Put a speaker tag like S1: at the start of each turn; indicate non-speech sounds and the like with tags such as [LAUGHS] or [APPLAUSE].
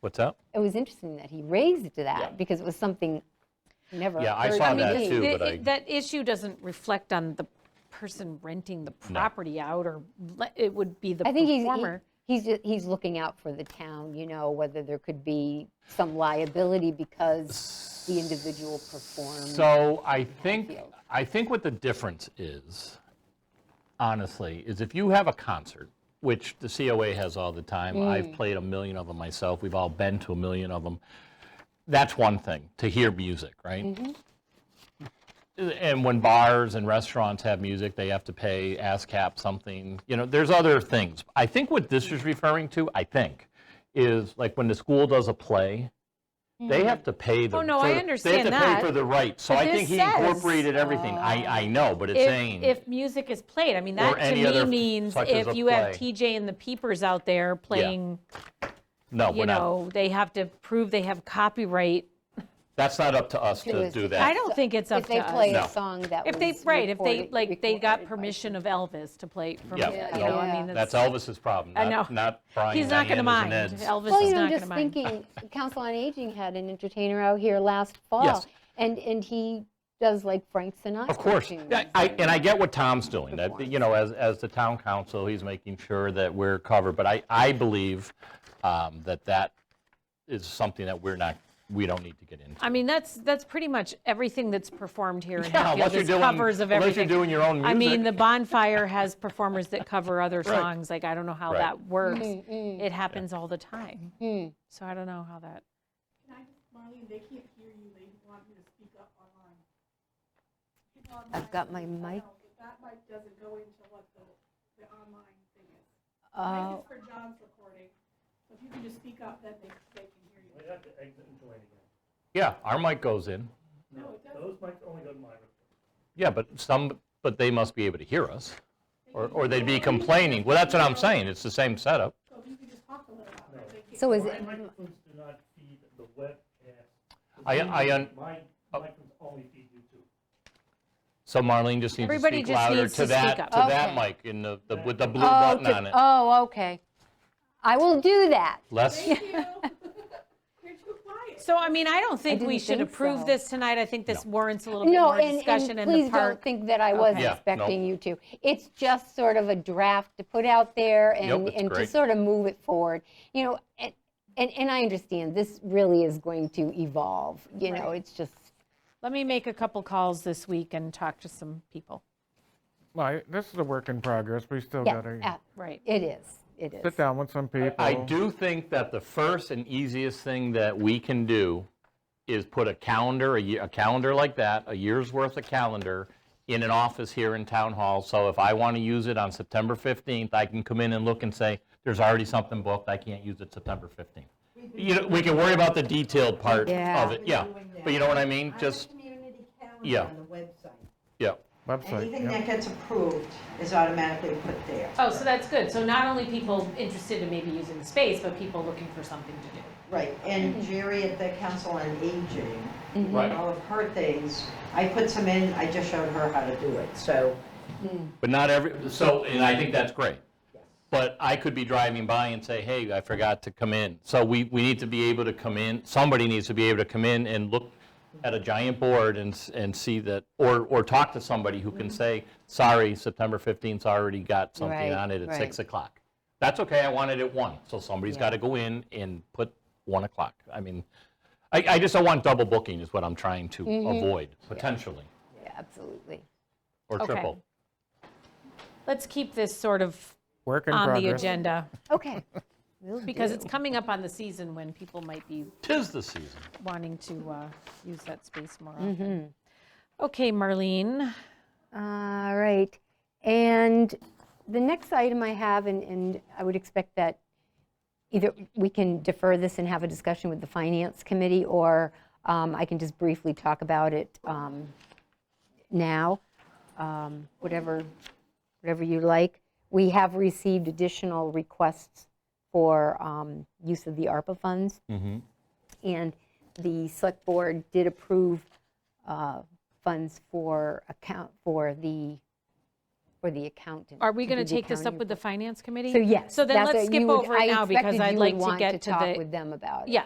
S1: What's that?
S2: It was interesting that he raised
S1: Yeah.
S2: that because it was something never.
S1: Yeah, I
S2: occurred
S1: saw
S2: to
S1: that
S2: me.
S1: too,
S3: the-
S1: but I-
S3: it- That issue doesn't reflect on the person renting the property out, or le- it would be the
S2: I think he's,
S3: performer.
S2: he- he's, ju- he's looking out for the town, you know, whether there could be some liability because the individual performed.
S1: So I think, I think what the difference is, honestly, is if you have a concert, which the COA has all the time, I've played a million of them myself, we've all been to a million of them, that's one thing, to hear music, right? And when bars and restaurants have music, they have to pay ASCAP something, you know, there's other things. I think what this is referring to, I think, is like when the school does a play, they have to pay the.
S3: Oh, no,
S1: for
S3: I
S1: the-
S3: understand
S1: They have to
S3: that.
S1: pay for the rights, so
S3: But
S1: I think
S3: this
S1: he
S3: says- um,
S1: incorporated everything. I, I know, but it's saying.
S3: If, if music is played, I mean, that to
S1: any other
S3: me
S1: f-
S3: means
S1: such as a
S3: if you have
S1: play.
S3: TJ and the Peepers out there playing,
S1: No, we're
S3: you
S1: not,
S3: know, they have to prove they have copyright.
S1: that's not up to us to
S2: Because
S1: do
S2: if
S1: that.
S3: I don't think it's up
S2: If
S3: to
S2: they play
S1: No.
S2: a
S3: us.
S2: song that was
S3: If they, right, if they,
S2: recorded-
S3: like, they
S2: recorded
S3: got
S2: by-
S3: permission of Elvis to play, from- you
S1: Yeah,
S3: know, I
S2: yeah.
S3: mean,
S1: That's
S3: that's,
S1: Elvis's problem,
S3: I
S1: not,
S3: know.
S1: not Brian,
S3: he's not going to
S1: Diana's and
S3: mind.
S1: Ed's.
S3: Elvis
S2: Well,
S3: is
S2: you know, I'm
S3: not going
S2: just
S3: to mind.
S2: thinking,
S3: [LAUGHS]
S2: Council on Aging had an entertainer out here last fall.
S1: Yes.
S2: And, and he does like Frank Sinatra.
S1: Of course,
S2: tunes.
S1: Yeah, I, and I get what Tom's doing, that, you know, as, as the town council, he's making sure that we're covered, but I, I believe um, that that is something that we're not, we don't need to get into.
S3: I mean, that's, that's pretty much everything that's performed here in
S1: Yeah, unless
S3: Hatfield
S1: you're
S3: is
S1: doing-
S3: covers of
S1: unless you're
S3: everything.
S1: doing your own
S3: I mean,
S1: music.
S3: the Bonfire has performers that
S1: [LAUGHS]
S3: cover other songs, like, I don't know how
S1: Right.
S2: Mm-hmm.
S3: that works. It happens all the time. So I don't know how that,
S4: Can I, Marlene, they can't hear you, they want you to speak up online. Speak online.
S2: I've got my mic.
S4: No, That mic doesn't go into what the, the online thing is.
S2: uh,
S4: Mine is for John's recording, so if you can just speak up, then they, they can hear you.
S5: have to exit and join again.
S1: Yeah, our mic goes in,
S4: No, it doesn't,
S5: Those mics only go to my room.
S1: yeah, but some, but they must be able to hear us, or, or they'd be complaining, well, that's what I'm saying, it's the same setup.
S4: so if you can just talk a little louder, they can.
S2: So is
S5: My
S2: it,
S5: microphones do not feed the webcast.
S1: I- I un- Oh.
S5: My microphones only feed YouTube.
S1: So Marlene just needs to
S3: Everybody
S1: speak
S3: just
S1: louder
S3: needs
S1: to
S3: to speak
S1: that,
S3: up.
S1: to that
S2: Okay.
S1: mic in the, the- with the blue
S2: oh,
S1: button
S2: to-
S1: on it.
S2: oh, okay. I will do that.
S3: Oh,
S1: Less,
S4: You're too quiet.
S3: so I mean, I don't think we
S2: didn't
S3: should
S2: think
S3: approve
S2: so.
S3: this tonight. I think this warrants a little bit
S2: No,
S3: more
S2: and,
S3: discussion
S2: and
S3: in the
S2: please don't
S3: park.
S2: think that I was
S1: Okay. Yeah, no.
S2: expecting you to. It's just sort of a draft to put out there and,
S1: it's
S2: and to
S1: great.
S2: sort of move it forward. You know, and, and, and I understand this really is going to evolve, you know, it's just,
S3: Let me make a couple calls this week and talk to some people.
S6: Well, I- this is a work in progress. We still
S2: yeah,
S6: gotta
S2: yeah,
S3: Right.
S2: it is, it is.
S6: sit down with some people.
S1: I do think that the first and easiest thing that we can do is put a calendar, a, ye- a calendar like that, a year's worth of calendar, in an office here in Town Hall. So if I want to use it on September 15th, I can come in and look and say, there's already something booked, I can't use it September 15th. You know, we can worry about the detailed part
S2: Yeah.
S1: of it, yeah. But you know what I mean? Just,
S7: I have a community
S1: Yeah.
S7: calendar on the website.
S1: yeah.
S6: Website,
S7: Anything
S6: yeah.
S7: that gets approved is automatically put there.
S3: Oh, so that's good. So not only people interested in maybe using the space, but people looking for something to do.
S7: Right, and Jerry at the Council on Aging,
S1: Right.
S7: all of her things, I put some in, I just showed her how to do it, so.
S1: But not every, so, and I think that's great. But I could be driving by and say, hey, I forgot to come in. So we, we need to be able to come in, somebody needs to be able to come in and look at a giant board and, s- and see that, or, or talk to somebody who can say, sorry, September 15th's already got something
S2: Mm-hmm. Right,
S1: on it at
S2: right.
S1: 6 o'clock. That's okay, I want it at 1, so somebody's got to go in and put 1 o'clock. I mean, I, I just don't want double booking is what I'm trying to
S2: Mm-hmm.
S1: avoid, potentially,
S2: Yeah, Absolutely.
S1: or
S3: Okay.
S1: triple.
S3: Let's keep this sort of
S6: Work in
S3: on the
S6: progress.
S3: agenda [LAUGHS]
S2: Okay. Will do.
S3: because it's coming up on the season when people might be
S1: Tis the season.
S3: wanting to uh, use that space more often.
S2: Mm-hmm.
S3: Okay, Marlene,
S2: All right. And the next item I have, and, and I would expect that either we can defer this and have a discussion with the Finance Committee, or um, I can just briefly talk about it um, now, um, whatever, whatever you like. We have received additional requests for um, use of the ARPA funds. And the Select Board did approve uh, funds for account, for the or the accountant.
S3: Are we
S2: do
S3: going
S2: the
S3: to take this up
S2: accounting
S3: with the
S2: for-
S3: finance committee?
S2: So yes.
S3: So then
S2: that's
S3: let's
S2: what you
S3: skip
S2: would-
S3: over it now because
S2: I expected
S3: I'd
S2: you
S3: like
S2: would
S3: to
S2: want
S3: get to
S2: talk with
S3: the,
S2: them about it.
S3: yeah,